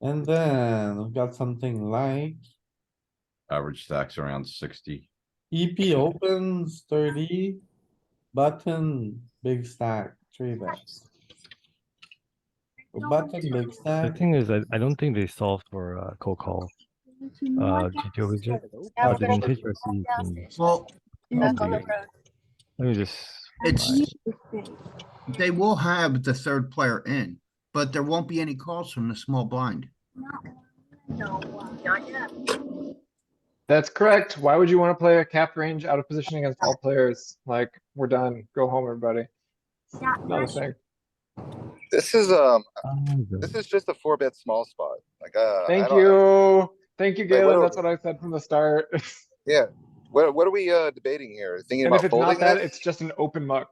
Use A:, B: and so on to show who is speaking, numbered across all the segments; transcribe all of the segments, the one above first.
A: And then we've got something like
B: Average stacks around sixty.
A: EP E opens thirty, button, big stack, three bets. Button, big
C: The
A: stack,
C: thing is, I, I don't think they solved for uh, cold call. Uh, did you overjam? Oh, they didn't pitch versus. mm,
D: Well,
C: okay. Let me just.
D: it's, they will have the third player in, but there won't be any calls from the small blind.
E: That's correct. Why would you wanna play a cap range out of position against all players? Like, we're done. Go home, everybody. Not a thing.
F: This is, um,
C: find them.
F: this is just a four bet small spot, like, uh. I
E: Thank
F: don't-
E: you. Thank you,
F: Wait, what
E: Galen.
F: are
E: That's what I said from the start.
F: What, what are we, uh, debating here? Thinking
E: And if
F: about
E: it's not
F: folding
E: that, it's
F: this?
E: just an open muck.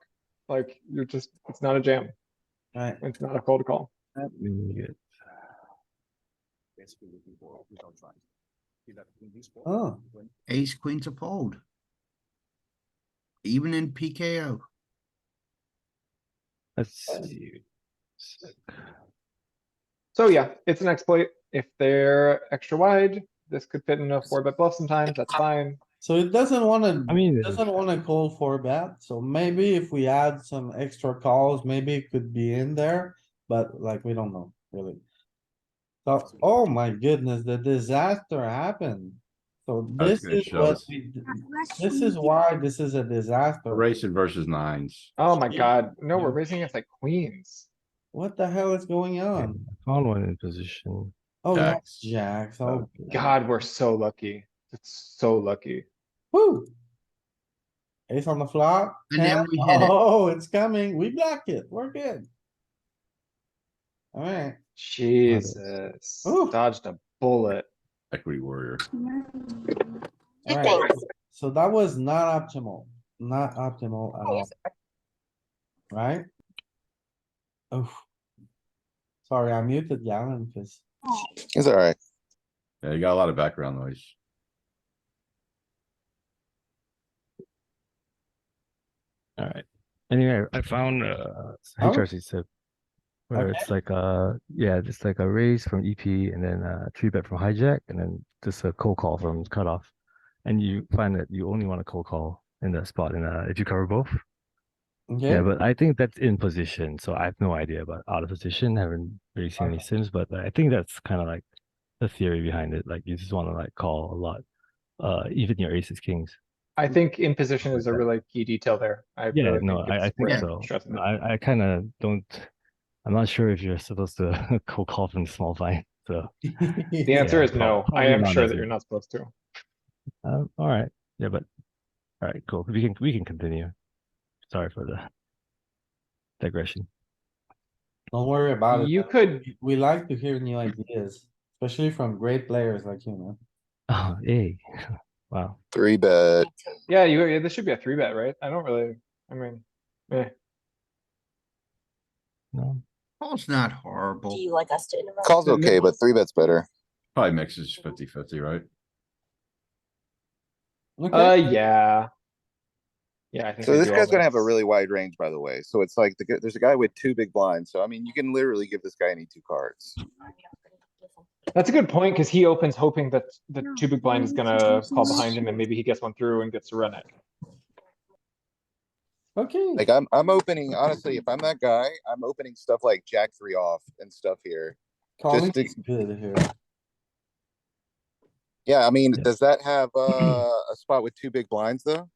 E: Like, you're just, it's not a jam.
A: right?
E: It's not a cold call.
C: Mm, yeah.
G: basically looking for without trying. See that in this spot,
A: Oh,
G: when
D: Ace, queen to fold. Even in PKO.
C: Let's see.
E: So yeah, it's an exploit. If they're extra wide, this could fit in a four bet bluff sometimes. That's fine.
A: so it doesn't wanna,
C: I mean,
A: it doesn't wanna call for a bet, so maybe if we add some extra calls, maybe it could be in there, but like, we don't know, really. So, oh my goodness, the disaster happened. So
B: I was
A: this
B: gonna
A: is
B: show
A: what
B: this.
A: we, d- this is why this is a disaster.
B: Racing versus nines.
E: Oh my
A: Yeah.
E: god. No, we're
A: Yeah.
E: raising us like queens.
A: What the hell is going on?
C: uh, found one in position.
A: Oh, that's
B: Jacks.
A: jacks, oh,
E: God, we're so lucky. It's so lucky.
A: woo. Ace on the flop.
D: And then
A: hand.
D: we hit it.
A: Oh, it's coming, we blocked it, we're good. Alright,
E: Jesus,
A: Ooh.
E: dodged a bullet.
B: Equity warrior.
A: alright, so that was not optimal, not optimal at all, right? Oh. Sorry, I muted Galen, cause
F: It's alright.
B: Yeah, you got a lot of background noise.
C: Alright. Anyway, I found uh
A: Oh.
C: HRC sip. Where
A: Okay.
C: it's like a, yeah, just like a raise from EP and then uh three bet from hijack and then just a cold call from cutoff. And you find that you only want a cold call in that spot and uh if you cover both. Yeah,
A: okay,
C: but I think that's in position, so I have no idea about out of position. Haven't really seen any sims, but I think that's kind of like the theory behind it. Like you just want to like call a lot, uh, even your aces kings.
E: I think in position is a
C: Okay.
E: really key detail there. I
C: Yeah,
E: really
C: no, I,
E: it's
C: I think
E: worth
C: so.
E: stressing that.
C: I, I kind of don't. I'm not sure if you're supposed to cold call from small blind. So
E: The answer
C: yeah,
E: is no.
C: prob-
E: I
C: probably
E: am
C: not
E: sure
C: as
E: that
C: a-
E: you're not supposed to.
C: um, all right, yeah, but all right, cool. We can we can continue. Sorry for the digression.
A: don't worry about it.
E: You could,
A: We- We like to hear new ideas, especially from great players like you, man.
C: Oh, hey, wow.
F: Three bet.
E: yeah, you, yeah, this should be a three bet, right? I don't really, I mean, eh.
C: No,
D: Call's not horrible.
H: Do you like us to interrupt?
F: Call's
E: The
F: okay, but three bet's better.
B: Probably mixes 50-50, right?
E: Uh,
A: Okay,
E: yeah. Yeah, I think.
F: So
E: I
F: this
E: do all
F: guy's gonna have a
E: this.
F: really wide range, by the way. So it's like, the g- there's a guy with two big blinds, so I mean, you can literally give this guy any two cards.
E: That's a good point, cuz he opens hoping that the
H: No,
E: two big blind is
H: maybe
E: gonna
H: sometimes
E: call
H: not.
E: behind him and maybe he gets one through and gets to run it.
A: okay.
F: Like, I'm, I'm opening, honestly, if I'm that guy, I'm opening stuff like jack three off and stuff here.
A: Calling
F: to-
A: is good here.
F: Yeah, I mean,
C: Yeah.
F: does that have, uh, a spot with two big blinds though?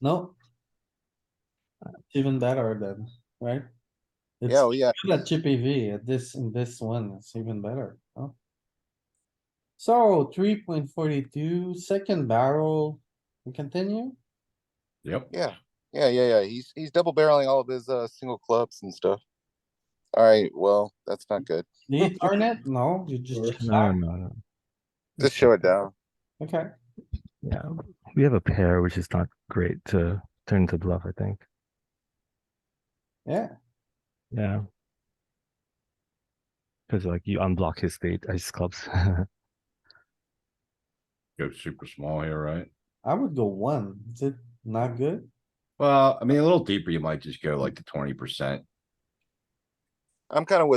A: No. It's Even better than, right? It's
F: Yeah, oh, yeah,
A: good at chippy V at this, in this one, it's even better, huh? So three point forty-two, second barrel, we continue?
B: Yep.
F: yeah, yeah, yeah, yeah. He's, he's double barreling all of his, uh, single clubs and stuff. Alright, well, that's not good.
A: Do you turn it? No, you just, check
C: no,
A: back.
C: no, no.
F: Just show it down.
A: okay,
C: Yeah, we have a pair, which is not great to turn to bluff, I think.
A: yeah,
C: Yeah. Because like you unblock his spade, ice clubs.
B: Go super small here, right?
A: I would go one, is it not good?
B: Well, I mean, a little deeper, you might just go like to twenty percent.
F: I'm kinda with